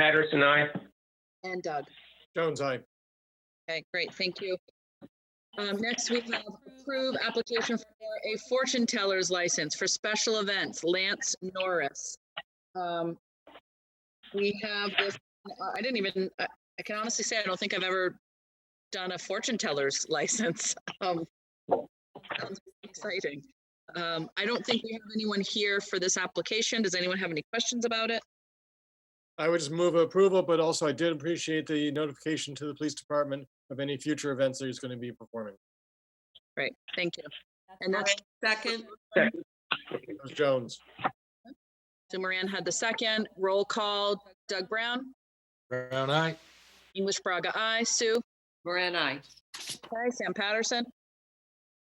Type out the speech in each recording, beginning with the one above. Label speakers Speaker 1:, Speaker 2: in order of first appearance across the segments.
Speaker 1: Patterson, aye.
Speaker 2: and Doug.
Speaker 3: Jones, aye.
Speaker 2: Okay, great, thank you. Um, next we have approve application for a fortune teller's license for special events, Lance Norris. Um, we have this, I- I didn't even, I I can honestly say I don't think I've ever done a fortune teller's license. Um, sounds Exciting. Um, I don't think we have anyone here for this application. Does anyone have any questions about it?
Speaker 3: I would just move approval, but also I did appreciate the notification to the police department of any future events that he's going to be performing.
Speaker 2: Great, thank you. And that's
Speaker 4: Second,
Speaker 3: That was Jones.
Speaker 2: So Moran had the second. Roll call, Doug Brown,
Speaker 5: Brown eye.
Speaker 2: English Braga, I. Sue.
Speaker 4: Moran, I.
Speaker 2: Okay, Sam Patterson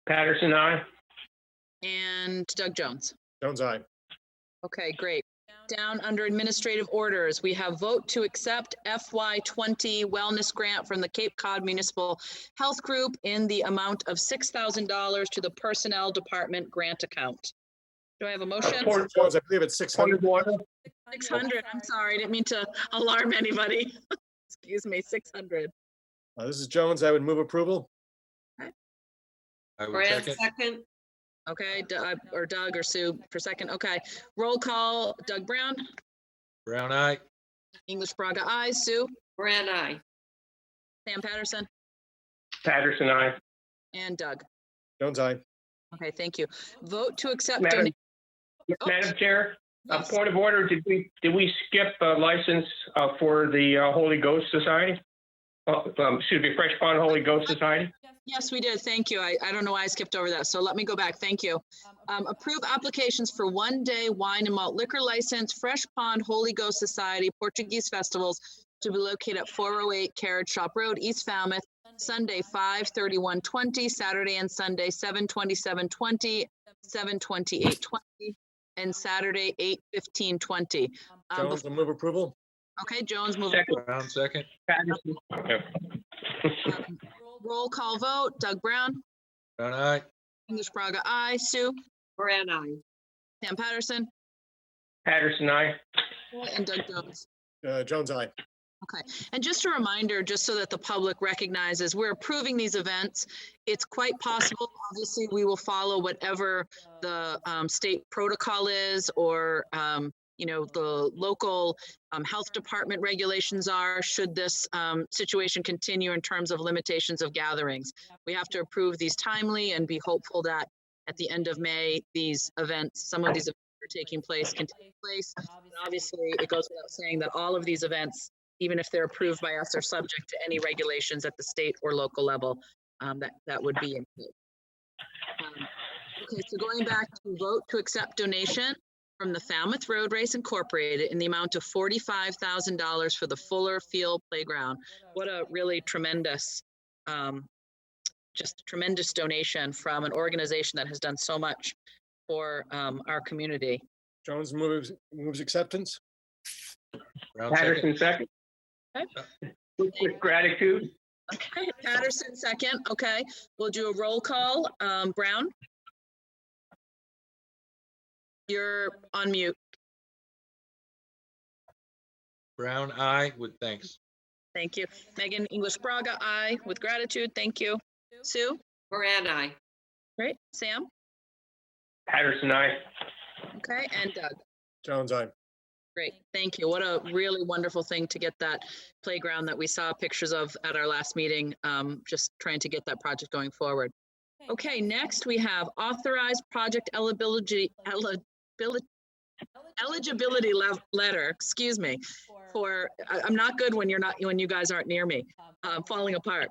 Speaker 1: Patterson, aye.
Speaker 2: and Doug Jones.
Speaker 3: Jones, aye.
Speaker 2: Okay, great. Down under administrative orders, we have vote to accept FY twenty wellness grant from the Cape Cod Municipal Health Group in the amount of six thousand dollars to the Personnel Department grant account. Do I have a motion?
Speaker 1: Point of
Speaker 3: Jones, I believe it's 600.
Speaker 1: order.
Speaker 2: Six hundred, I'm sorry, didn't mean to alarm anybody. Excuse me, six hundred.
Speaker 3: Uh, This is Jones. I would move approval.
Speaker 5: I would
Speaker 4: Moran,
Speaker 5: second.
Speaker 4: second,
Speaker 2: Okay, D- uh, or Doug or Sue for second, okay. Roll call, Doug Brown,
Speaker 5: Brown eye.
Speaker 2: English Braga, I. Sue,
Speaker 4: Moran, I.
Speaker 2: Sam Patterson.
Speaker 1: Patterson, aye.
Speaker 2: And Doug.
Speaker 3: Jones, aye.
Speaker 2: Okay, thank you. Vote to accept.
Speaker 1: Madam-
Speaker 2: donat- Oh,
Speaker 1: Madam Chair, a
Speaker 2: yes.
Speaker 1: point of order, did we, did we skip a license uh, for the uh, Holy Ghost Society? Uh, um, Excuse me, Fresh Pond Holy Ghost Society?
Speaker 2: Yes, we did. Thank you. I, I don't know why I skipped over that. So let me go back. Thank you. Um, approve applications for one day wine and malt liquor license, Fresh Pond Holy Ghost Society, Portuguese festivals to be located at four oh eight Carriage Shop Road, East Falmouth, Sunday, 5:31:20, Saturday and Sunday, 7:27:20, 7:28:20, and Saturday, 8:15:20. Um,
Speaker 3: Jones,
Speaker 2: bef-
Speaker 3: I move approval.
Speaker 2: okay, Jones, move.
Speaker 1: Second,
Speaker 5: Brown second.
Speaker 1: Patterson. Okay.
Speaker 2: Um, Roll call vote, Doug Brown,
Speaker 5: Brown eye.
Speaker 2: English Braga, I, Sue,
Speaker 4: Moran, I.
Speaker 2: Sam Patterson,
Speaker 1: Patterson, aye.
Speaker 2: and Doug Jones.
Speaker 3: Uh, Jones, aye.
Speaker 2: And just a reminder, just so that the public recognizes, we're approving these events. It's quite possible, obviously, we will follow whatever the um, state protocol is or, um, you know, the local um, health department regulations are, should this um, situation continue in terms of limitations of gatherings. We have to approve these timely and be hopeful that at the end of May, these events, some of these events are taking place, can take place. And Obviously, it goes without saying that all of these events even if they're approved by us, are subject to any regulations at the state or local level um, that, that would be. in place. Um, Okay, so going back to vote to accept donation from the Falmouth Road Race Incorporated in the amount of forty-five thousand dollars for the Fuller Field Playground. What a really tremendous, um, just tremendous donation from an organization that has done so much for um, our community.
Speaker 3: Jones moves, moves acceptance.
Speaker 5: Brown second.
Speaker 1: Patterson, second.
Speaker 2: Okay.
Speaker 1: With with gratitude,
Speaker 2: Okay, Patterson second, okay. We'll do a roll call. Um, Brown? You're on mute.
Speaker 5: Brown eye with thanks.
Speaker 2: Thank you. Megan English Braga, aye, with gratitude, thank you. Sue?
Speaker 4: Moran, I.
Speaker 2: Great. Sam?
Speaker 1: Patterson, aye.
Speaker 2: Okay, and uh, Doug?
Speaker 3: Jones, aye.
Speaker 2: Great, thank you. What a really wonderful thing to get that playground that we saw pictures of at our last meeting, um, just trying to get that project going forward. Okay, next we have authorized project eligibility, eligibility, eligibility lev- letter, excuse me, for, I, I'm not good when you're not, when you guys aren't near me, um, falling apart.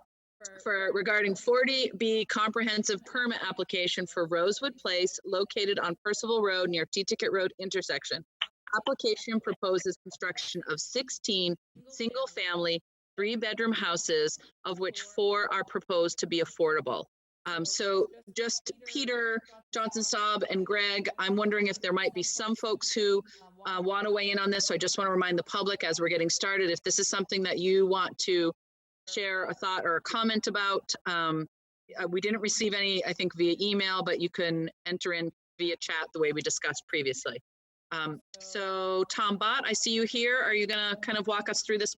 Speaker 2: For regarding 40B comprehensive permit application for Rosewood Place located on Percival Road near T-Ticket Road intersection application proposes construction of 16 single-family, three-bedroom houses, of which four are proposed to be affordable. Um, so just Peter, Johnson Staub, and Greg, I'm wondering if there might be some folks who uh, want to weigh in on this. So I just want to remind the public as we're getting started, if this is something that you want to share a thought or a comment about, um, uh, we didn't receive any, I think, via email, but you can enter in via chat the way we discussed previously. Um, Um, So Tom Bott, I see you here. Are you gonna kind of walk us through this